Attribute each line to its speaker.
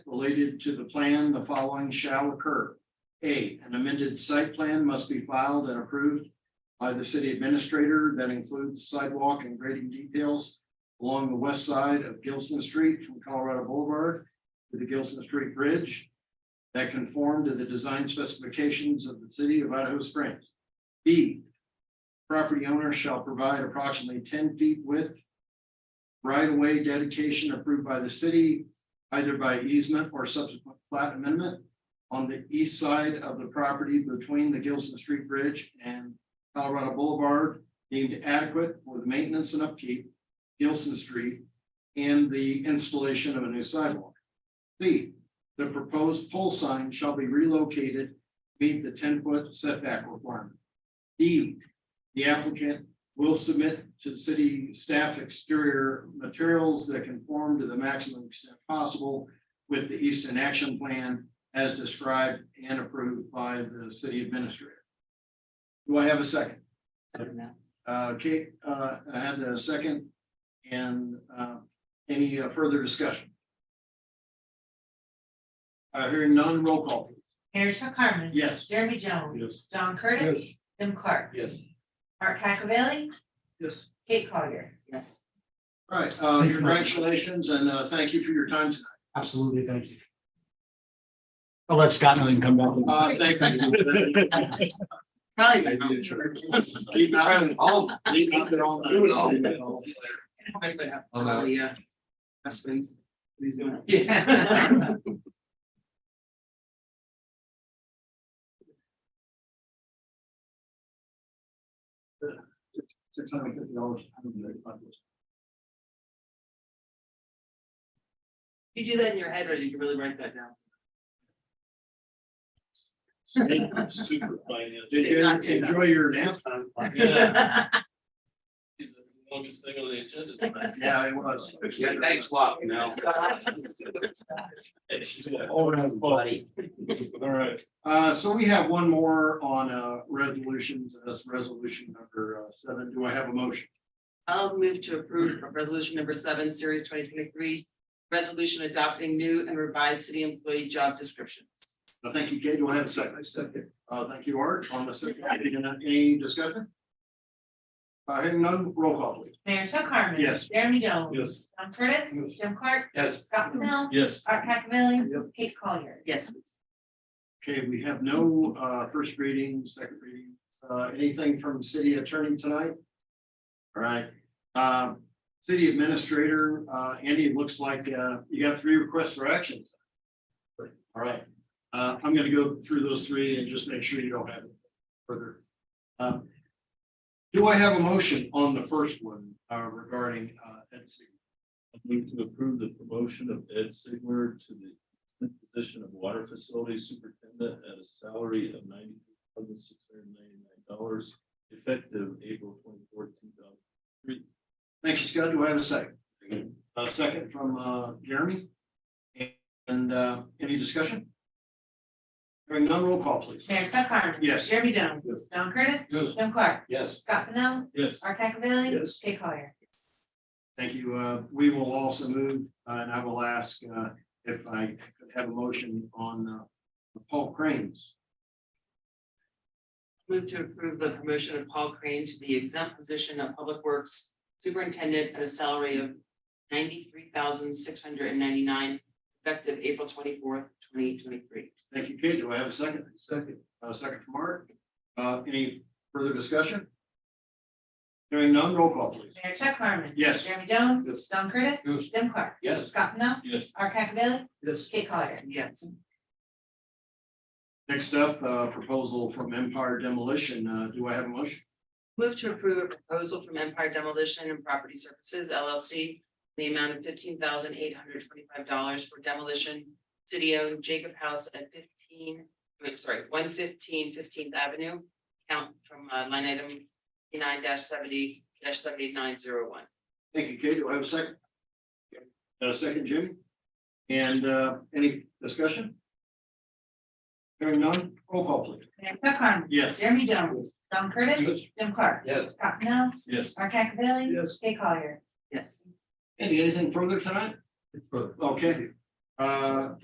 Speaker 1: related to the plan, the following shall occur. A, an amended site plan must be filed and approved by the city administrator that includes sidewalk and grading details along the west side of Gilson Street from Colorado Boulevard to the Gilson Street Bridge that conform to the design specifications of the city of Idaho Springs. B, property owner shall provide approximately ten feet width right-of-way dedication approved by the city either by easement or subsequent plat amendment on the east side of the property between the Gilson Street Bridge and Colorado Boulevard deemed adequate for the maintenance and upkeep Gilson Street and the installation of a new sidewalk. C, the proposed pole sign shall be relocated to meet the ten-foot setback requirement. D, the applicant will submit to city staff exterior materials that conform to the maximum extent possible with the Eastern Action Plan as described and approved by the city administrator. Do I have a second? Uh, Kate, uh, I had a second. And, uh, any uh, further discussion? Uh, hearing none, roll call. please.
Speaker 2: Mary Chuck Harmon.
Speaker 1: Yes.
Speaker 2: Jeremy Jones.
Speaker 1: Yes.
Speaker 2: John Curtis. Jim Clark.
Speaker 1: Yes.
Speaker 2: Art Cacavelli.
Speaker 1: Yes.
Speaker 2: Kate Collier. Yes.
Speaker 1: All right, uh, congratulations and, uh, thank you for your time tonight.
Speaker 3: Absolutely, thank you. I'll let Scott know and come back.
Speaker 1: Uh, thank you. Guys, I did sure. Leave out and all, leave out and all. Do it all.
Speaker 4: Oh, yeah. That's been. He's doing. it.
Speaker 2: Yeah.
Speaker 1: Six hundred and fifty dollars.
Speaker 4: You do that in your head, or you can really write that down.
Speaker 1: Super finance. Did you enjoy your nap? Yeah,
Speaker 5: Geez, that's the longest thing on the agenda. tonight.
Speaker 1: yeah, it was.
Speaker 5: Yeah, thanks a lot, you know.
Speaker 4: buddy.
Speaker 5: All right.
Speaker 1: Uh, so we have one more on, uh, resolutions, and that's resolution number uh, seven. Do I have a motion?
Speaker 4: I'll move to approve resolution number seven, series twenty twenty-three. Resolution adopting new and revised city employee job descriptions.
Speaker 1: Uh, Thank you, Kate. Do I have a second? Uh, thank you, Art, on the second. Any discussion? Uh, hearing none, roll call please.
Speaker 2: Mayor Chuck Harmon.
Speaker 1: Yes.
Speaker 2: Jeremy Jones.
Speaker 5: Yes.
Speaker 2: John Curtis.
Speaker 1: Yes.
Speaker 2: Jim Clark.
Speaker 5: Yes.
Speaker 2: Scott Pennell.
Speaker 5: Yes.
Speaker 2: Art Cacavelli.
Speaker 1: Yep.
Speaker 2: Kate Collier.
Speaker 4: Yes, please.
Speaker 1: Okay, we have no uh first reading, second reading, uh anything from city attorney tonight? All right, um, city administrator, uh Andy, it looks like uh you got three requests for actions. All right, uh I'm gonna go through those three and just make sure you don't have further. Um, Do I have a motion on the first one uh regarding uh Ed Sig-
Speaker 5: I Move to approve the promotion of Ed Sigler to the position of water facility superintendent at a salary of ninety thousand six hundred ninety-nine dollars effective April twenty-fourth, two thousand.
Speaker 1: Thank you, Scott. Do I have a second? A second from uh, Jeremy. And uh, any discussion? Hearing none, roll call, please.
Speaker 2: Mayor Chuck Harmon.
Speaker 1: Yes.
Speaker 2: Jeremy Jones.
Speaker 1: Yes.
Speaker 2: John Curtis.
Speaker 5: Yes.
Speaker 2: Jim Clark.
Speaker 1: Yes.
Speaker 2: Scott Pennell.
Speaker 5: Yes.
Speaker 2: Art Cacavelli.
Speaker 1: Yes.
Speaker 2: Kate Collier.
Speaker 1: Thank you. Uh, We will also move, uh, and I will ask uh, if I could have a motion on uh, Paul Cranes.
Speaker 4: Move to approve the promotion of Paul Crane to the exempt position of Public Works Superintendent at a salary of ninety-three thousand six hundred and ninety-nine, effective April twenty-fourth, twenty twenty-three.
Speaker 1: Thank you, Kate. Do I have a second? Second. A second from Art. Uh, Any further discussion? Hearing none, roll call, please.
Speaker 2: Mayor Chuck Harmon.
Speaker 1: Yes.
Speaker 2: Jeremy Jones.
Speaker 1: Yes.
Speaker 2: John Curtis.
Speaker 1: Yes.
Speaker 2: Jim Clark.
Speaker 1: Yes.
Speaker 2: Scott Pennell.
Speaker 5: Yes.
Speaker 2: Art Cacavelli.
Speaker 1: Yes.
Speaker 2: Kate Collier.
Speaker 4: Yes.
Speaker 1: Next up, uh, proposal from Empire Demolition. Uh, Do I have a motion?
Speaker 4: Move to approve a proposal from Empire Demolition and Property Services LLC. in The amount of fifteen thousand eight hundred twenty-five dollars for demolition, city-owned Jacob House at fifteen, I'm sorry, 115 15th Avenue. Count from uh, line item nine seventy seventy-nine zero one.
Speaker 1: Thank you, Kate. Do I have a second? A second, Jimmy? And uh, any discussion? Hearing none, roll call please.
Speaker 2: Mayor Chuck Harmon.
Speaker 1: Yes.
Speaker 2: Jeremy Jones. John Curtis. Jim Clark.
Speaker 1: Yes.
Speaker 2: Scott Pennell.
Speaker 5: Yes.
Speaker 2: Art Cacavelli.
Speaker 1: Yes.
Speaker 2: Kate Collier.
Speaker 4: Yes.
Speaker 1: Andy, anything further tonight? Okay. Uh,